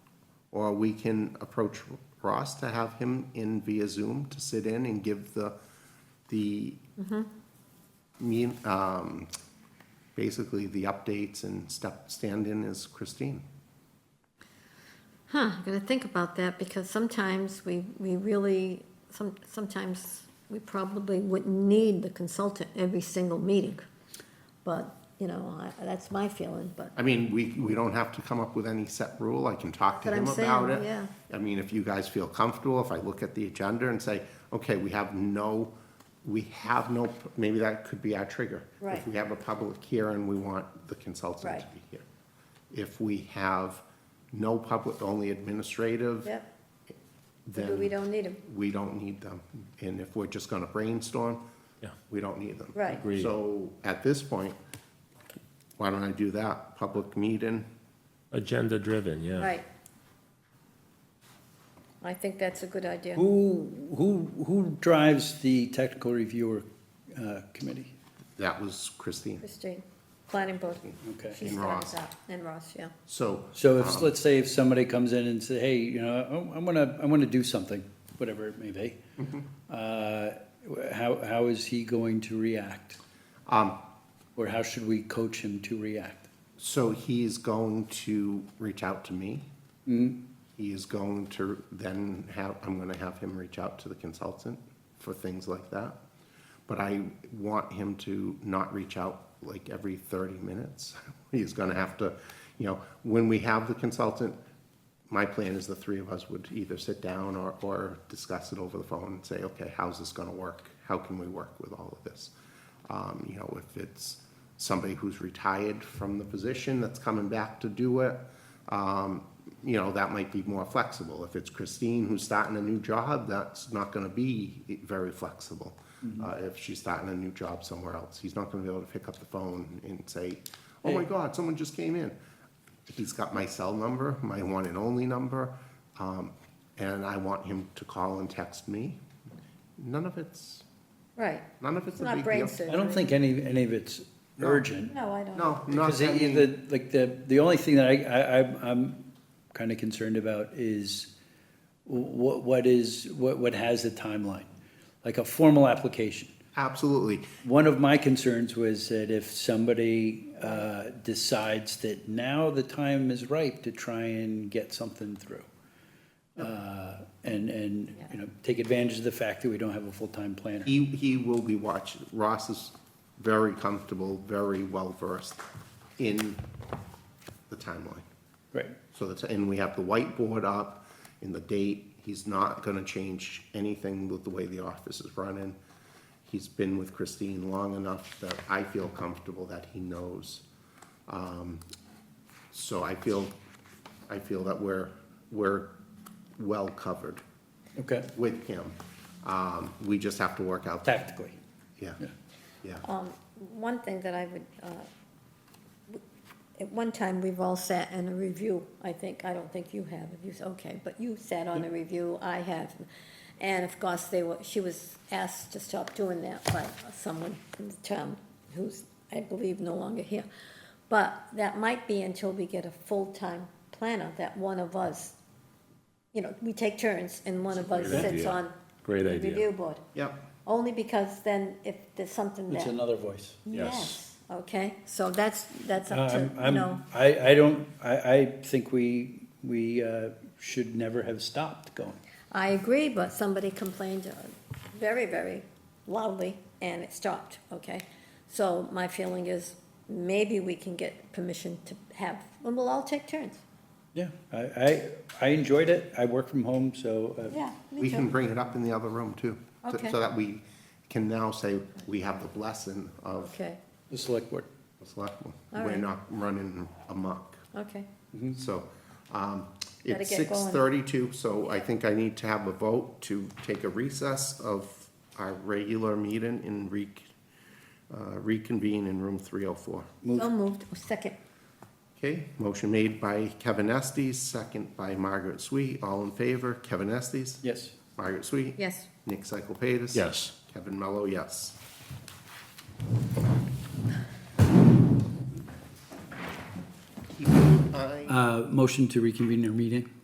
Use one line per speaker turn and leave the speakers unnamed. Or we can approach Ross to have him in via Zoom to sit in and give the, the mean, um, basically the updates and step, stand in as Christine.
Huh, I'm gonna think about that, because sometimes we, we really, some, sometimes we probably wouldn't need the consultant every single meeting. But, you know, I, that's my feeling, but,
I mean, we, we don't have to come up with any set rule, I can talk to
That's
him
what I'm
about
saying,
it.
yeah.
I mean, if you guys feel comfortable, if I look at the agenda and say, okay, we have no, we have no, maybe that could be our trigger. If
Right.
we have a public hearing, we want the consultant to
Right.
be here. If we have no public, only administrative,
yep,
then
we don't need them,
we don't need them. And if we're just gonna brainstorm,
Yeah.
we don't need them.
right.
Agreed.
So at this point, why don't I do that? Public meeting,
Agenda driven, yeah.
Right. I think that's a good idea.
Who, who, who drives the technical reviewer uh, committee?
that was Christine.
Christine, planning board.
Okay.
She
And
starts
Ross.
out, and Ross, yeah.
So,
So if, let's say if somebody comes in and say, hey, you know, I- I want to, I want to do something, whatever it may be. Uh, wh- How, how is he going to react?
um,
Or how should we coach him to react?
so he's going to reach out to me. He is going to then have, I'm gonna have him reach out to the consultant for things like that. But I want him to not reach out like every thirty minutes. He's gonna have to, you know, when we have the consultant, my plan is the three of us would either sit down or, or discuss it over the phone and say, okay, how's this gonna work? How can we work with all of this? Um, you know, if it's somebody who's retired from the position that's coming back to do it, um, you know, that might be more flexible. If it's Christine who's starting a new job, that's not gonna be very flexible. Uh, if she's starting a new job somewhere else, he's not gonna be able to pick up the phone and say, oh my God, someone just came in. He's got my cell number, my one and only number, um, and I want him to call and text me. None of it's,
Right,
none of it's
it's
a
not
big
brain
deal.
surgery.
I don't think any, any of it's
No.
urgent.
No, I don't.
No, not,
Because
I
the,
mean,
the, like, the, the only thing that I, I, I'm, I'm kinda concerned about is what, what is, what, what has a timeline? Like a formal application.
absolutely,
One of my concerns was that if somebody, uh, decides that now the time is ripe to try and get something through. Uh, and, and, you know, take advantage of the fact that we don't have a full-time planner.
he, he will be watching, Ross is very comfortable, very well-versed in the timeline.
Right,
So that's, and we have the whiteboard up and the date. He's not gonna change anything with the way the office is running. He's been with Christine long enough that I feel comfortable that he knows. Um, So I feel, I feel that we're, we're well covered
okay,
with him. Um, we just have to work out,
tactically.
yeah,
Yeah.
yeah.
Oh. One thing that I would, uh, w- at one time, we've all sat in a review, I think, I don't think you have, if you, s- okay, but you sat on a review, I have. And of course, they were, she was asked to stop doing that by someone in the town who's, I believe, no longer here. But that might be until we get a full-time planner, that one of us, you know, we take turns and one of us
Great
sits
idea.
on
Great
the review
idea.
board.
Yep,
Only because then if there's something that.
It's another voice.
Yes.
Okay, so that's, that's up to,
Uh, I'm-
you
I'm-
know,
I, I don't, I, I think we, we uh, should never have stopped going.
I agree, but somebody complained uh, very, very loudly, and it stopped, okay? So my feeling is, maybe we can get permission to have, and we'll all take turns.
Yeah, I, I, I enjoyed it. I work from home, so. uh,
Yeah,
we
me
can
too.
bring it up in the other room too. so-
Okay.
So that we can now say we have the blessing of
Okay,
The select board.
the selectmen.
All
We're
right.
not running amok.
okay,
So, um,
Gotta
it's
get
six
going.
thirty-two, so I think I need to have a vote to take a recess of our regular meeting and re, uh, reconvene in room three oh four.
so moved, second,
Okay, motion made by Kevin Estes, second by Margaret Sweet. All in favor, Kevin Estes?
Yes.
Margaret Sweet?
yes.
Nick Cyclepatis?
Yes.
Kevin Mello, yes. Keep an eye-
Uh, motion to reconvene our meeting.